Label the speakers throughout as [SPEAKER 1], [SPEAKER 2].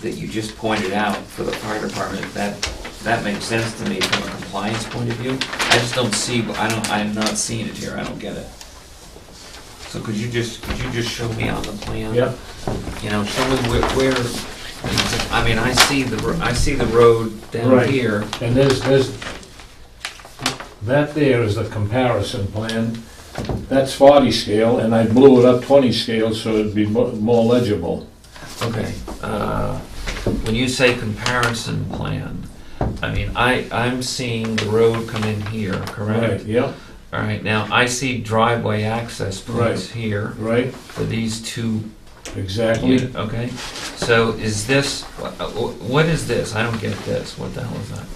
[SPEAKER 1] that you just pointed out for the fire department, that, that makes sense to me from a compliance point of view. I just don't see, I don't, I'm not seeing it here, I don't get it. So could you just, could you just show me on the plan?
[SPEAKER 2] Yep.
[SPEAKER 1] You know, show me where, where, I mean, I see the, ro- I see the road down
[SPEAKER 2] Right.
[SPEAKER 1] here.
[SPEAKER 2] And there's, there's, that there is the comparison plan. That's 40 scale, and I blew it up 20 scale, so it'd be mo- more legible.
[SPEAKER 1] Okay, uh, when you say comparison plan, I mean, I, I'm seeing the road come in here, correct?
[SPEAKER 2] Yep,
[SPEAKER 1] All right, now I see driveway access points here
[SPEAKER 2] right,
[SPEAKER 1] for these two,
[SPEAKER 2] exactly.
[SPEAKER 1] unit- okay? So is this, wha- uh, wh- what is this? I don't get this, what the hell is that?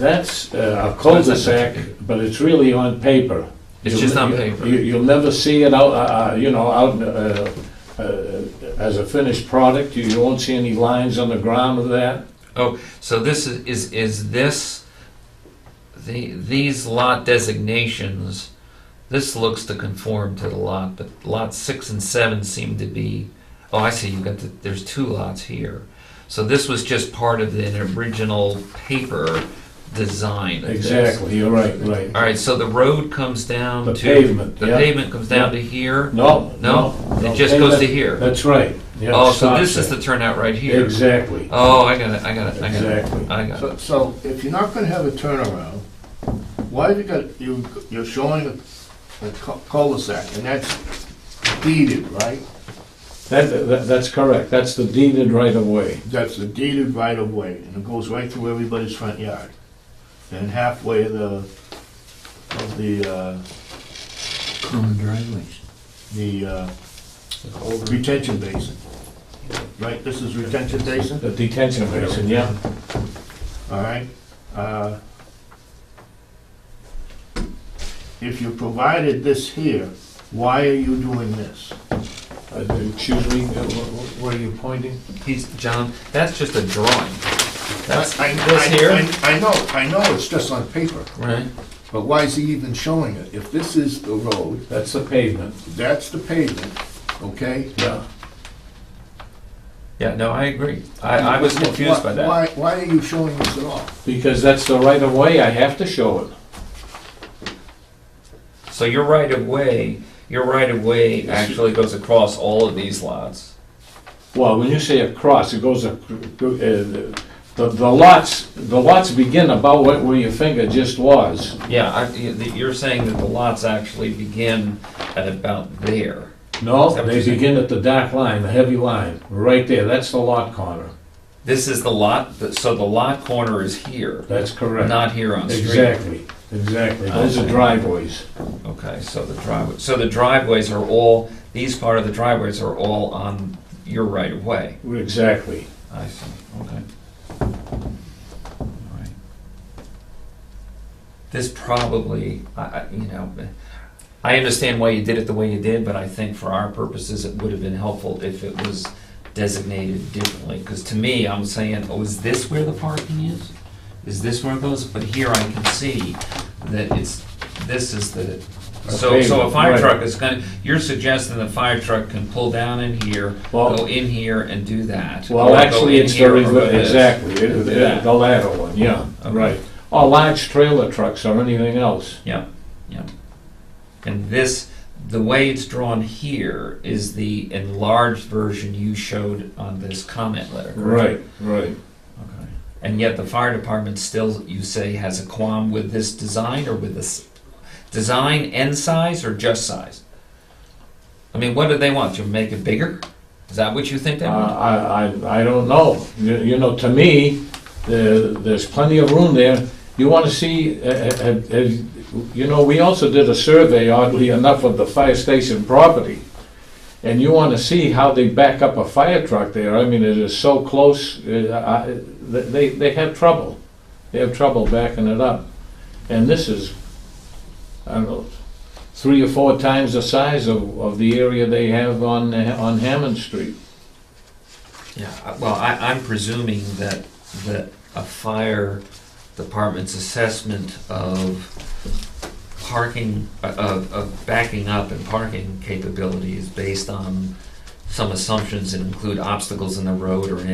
[SPEAKER 2] That's uh, a cul-de-sac, but it's really on paper.
[SPEAKER 1] It's
[SPEAKER 2] You'll-
[SPEAKER 1] just on
[SPEAKER 2] you-
[SPEAKER 1] paper.
[SPEAKER 2] you- You'll never see it out, uh, uh, you know, out, uh, uh, as a finished product. You you won't see any lines on the ground of that.
[SPEAKER 1] Oh, So this is, is, is this, the, these lot designations, this looks to conform to the lot, but lot six and seven seem to be, oh, I see, you got the, there's two lots here. So this was just part of the original paper design of this.
[SPEAKER 2] Exactly, you're right, right.
[SPEAKER 1] All right, so the road comes down to.
[SPEAKER 2] The pavement,
[SPEAKER 1] The
[SPEAKER 2] yeah.
[SPEAKER 1] pavement comes down to here?
[SPEAKER 2] No,
[SPEAKER 1] No?
[SPEAKER 2] no.
[SPEAKER 1] It
[SPEAKER 2] no,
[SPEAKER 1] just goes to
[SPEAKER 2] pavement-
[SPEAKER 1] here?
[SPEAKER 2] That's right. Yeah, it
[SPEAKER 1] Oh, so
[SPEAKER 2] stops
[SPEAKER 1] this is
[SPEAKER 2] there.
[SPEAKER 1] the turnout right here?
[SPEAKER 2] Exactly,
[SPEAKER 1] Oh, I got it, I got it, I got it,
[SPEAKER 2] exactly.
[SPEAKER 1] I got it.
[SPEAKER 3] So, so if you're not gonna have a turnaround, why have you got, you, you're showing a- a cu- cul-de-sac, and that's deeded, right?
[SPEAKER 2] That, that, that's correct, that's the deeded right of way.
[SPEAKER 3] That's a deeded right of way, and it goes right through everybody's front yard. And halfway of the, of the, uh,
[SPEAKER 4] Common driveways.
[SPEAKER 3] the, uh, retention basin. Right, this is retention basin?
[SPEAKER 2] The detention basin, yeah.
[SPEAKER 3] All right. uh, If you provided this here, why are you doing this?
[SPEAKER 2] Uh, Excuse me, uh, wh- wh- where are you pointing?
[SPEAKER 1] He's, John, that's just a drawing. That's
[SPEAKER 3] I- I-
[SPEAKER 1] this
[SPEAKER 3] I-
[SPEAKER 1] here,
[SPEAKER 3] I- I know, I know, it's just on paper,
[SPEAKER 1] right?
[SPEAKER 3] but why is he even showing it? If this is the road,
[SPEAKER 2] That's the pavement,
[SPEAKER 3] that's the pavement, okay?
[SPEAKER 2] yeah.
[SPEAKER 1] Yeah, no, I agree. I, I was confused by that.
[SPEAKER 3] Why, why are you showing this at all?
[SPEAKER 2] Because that's the right of way, I have to show it.
[SPEAKER 1] So your right of way, your right of way actually goes across all of these lots.
[SPEAKER 2] Well, when you say across, it goes, ac- uh, the, the lots, the lots begin about where where your finger just was.
[SPEAKER 1] Yeah, I, you- that you're saying that the lots actually begin at about there. Is
[SPEAKER 2] No,
[SPEAKER 1] that what
[SPEAKER 2] they
[SPEAKER 1] you're saying?
[SPEAKER 2] begin at the dark line, the heavy line, right there, that's the lot corner.
[SPEAKER 1] This is the lot, so the lot corner is here,
[SPEAKER 2] That's correct.
[SPEAKER 1] not here on street.
[SPEAKER 2] Exactly, exactly. Those are
[SPEAKER 1] Okay.
[SPEAKER 2] driveways.
[SPEAKER 1] Okay, so the driveway, so the driveways are all, these part of the driveways are all on your right of way.
[SPEAKER 2] Exactly.
[SPEAKER 1] I see, okay. All right. This probably, I, I, you know, I understand why you did it the way you did, but I think for our purposes, it would have been helpful if it was designated differently, because to me, I'm saying, oh, is this where the parking is? Is this where it goes? But here I can see that it's, this is the, so, so a fire
[SPEAKER 2] Right.
[SPEAKER 1] truck is gonna, you're suggesting the fire truck can pull down in here,
[SPEAKER 2] Well-
[SPEAKER 1] go in here and do that.
[SPEAKER 2] Well,
[SPEAKER 1] Or
[SPEAKER 2] actually,
[SPEAKER 1] go in
[SPEAKER 2] it's the,
[SPEAKER 1] here or
[SPEAKER 2] rever-
[SPEAKER 1] this.
[SPEAKER 2] exactly, it-
[SPEAKER 1] Do
[SPEAKER 2] it-
[SPEAKER 1] that.
[SPEAKER 2] the latter one, yeah,
[SPEAKER 1] Okay.
[SPEAKER 2] right. Or large trailer trucks or anything else.
[SPEAKER 1] Yeah, yeah. And this, the way it's drawn here is the enlarged version you showed on this comment letter. correct?
[SPEAKER 2] Right, right.
[SPEAKER 1] Okay. And yet the fire department still, you say, has a qualm with this design or with this design and size or just size? I mean, what do they want? To make it bigger? Is that what you think
[SPEAKER 2] Uh,
[SPEAKER 1] they want?
[SPEAKER 2] I, I, I don't know. You you know, to me, there, there's plenty of room there. You want to see, uh, uh, uh, you know, we also did a survey, oddly enough, of the fire station property. And you want to see how they back up a fire truck there. I mean, it is so close, uh, I- they, they have trouble. They have trouble backing it up. And this is, I don't know, three or four times the size of, of the area they have on, uh, on Hammond Street.
[SPEAKER 1] Yeah, I- well, I, I'm presuming that, that a fire department's assessment of parking, uh, of, of backing up and parking capability is based on some assumptions that include obstacles in the road or in